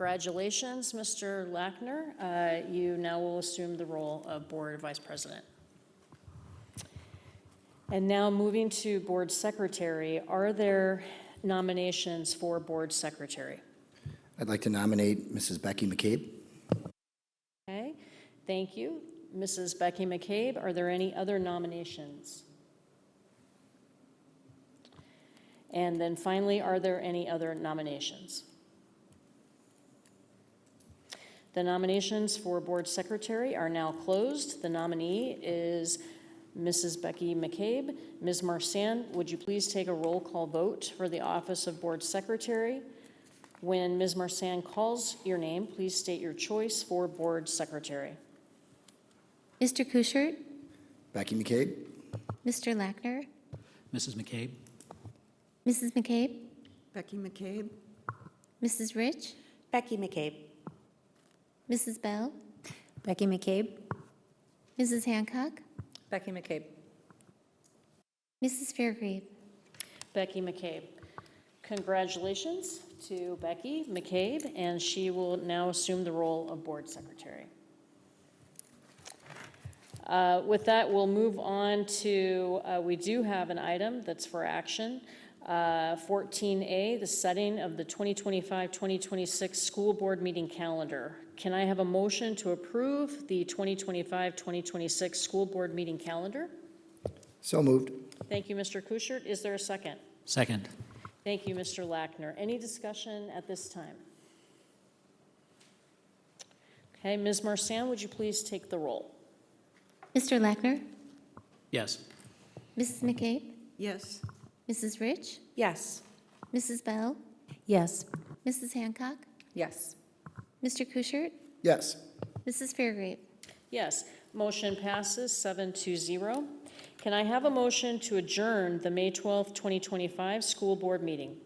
Congratulations, Mr. Lackner. Uh, You now will assume the role of Board Vice President. And now moving to Board Secretary, are there nominations for Board Secretary? I'd like to nominate Mrs. Becky McCabe. Okay, thank you. Mrs. Becky McCabe, are there any other nominations? And then finally, are there any other nominations? The nominations for Board Secretary are now closed. The nominee is Mrs. Becky McCabe. Ms. Marsan, would you please take a roll call vote for the office of Board Secretary? When Ms. Marsan calls your name, please state your choice for Board Secretary. Mr. Kuschert, Becky McCabe? Mr. Lackner, Mrs. McCabe? Mrs. McCabe, Becky McCabe. Mrs. Rich, Becky McCabe. Mrs. Bell, Becky McCabe. Mrs. Hancock, Becky McCabe. Mrs. Fairgrave. Becky McCabe. Congratulations to Becky McCabe, and she will now assume the role of Board Secretary. Uh, With that, we'll move on to, uh, we do have an item that's for action. Uh, 14A, the setting of the 2025-2026 school board meeting calendar. Can I have a motion to approve the 2025-2026 school board meeting calendar? So moved. Thank you, Mr. Kuschert. Is there a second? Second. Thank you, Mr. Lackner. Any discussion at this time? Okay, Ms. Marsan, would you please take the roll? Mr. Lackner, Yes. Mrs. McCabe, Yes. Mrs. Rich, Yes. Mrs. Bell, Yes. Mrs. Hancock, Yes. Mr. Kuschert, Yes. Mrs. Fairgrave. Yes, motion passes seven to zero. Can I have a motion to adjourn the May 12th, 2025 school board meeting?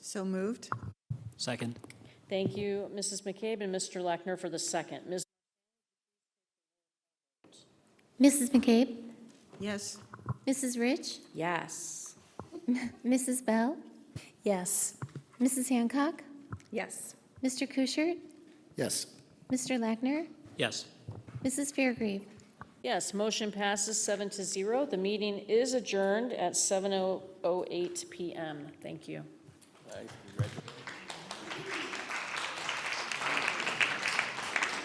So moved? Second. Thank you, Mrs. McCabe and Mr. Lackner for the second. Ms. Mrs. McCabe, Yes. Mrs. Rich, Yes. Mrs. Bell, Yes. Mrs. Hancock, Yes. Mr. Kuschert, Yes. Mr. Lackner, Yes. Mrs. Fairgrave. Yes, motion passes seven to zero. The meeting oh is adjourned at 7:08 PM. Thank you.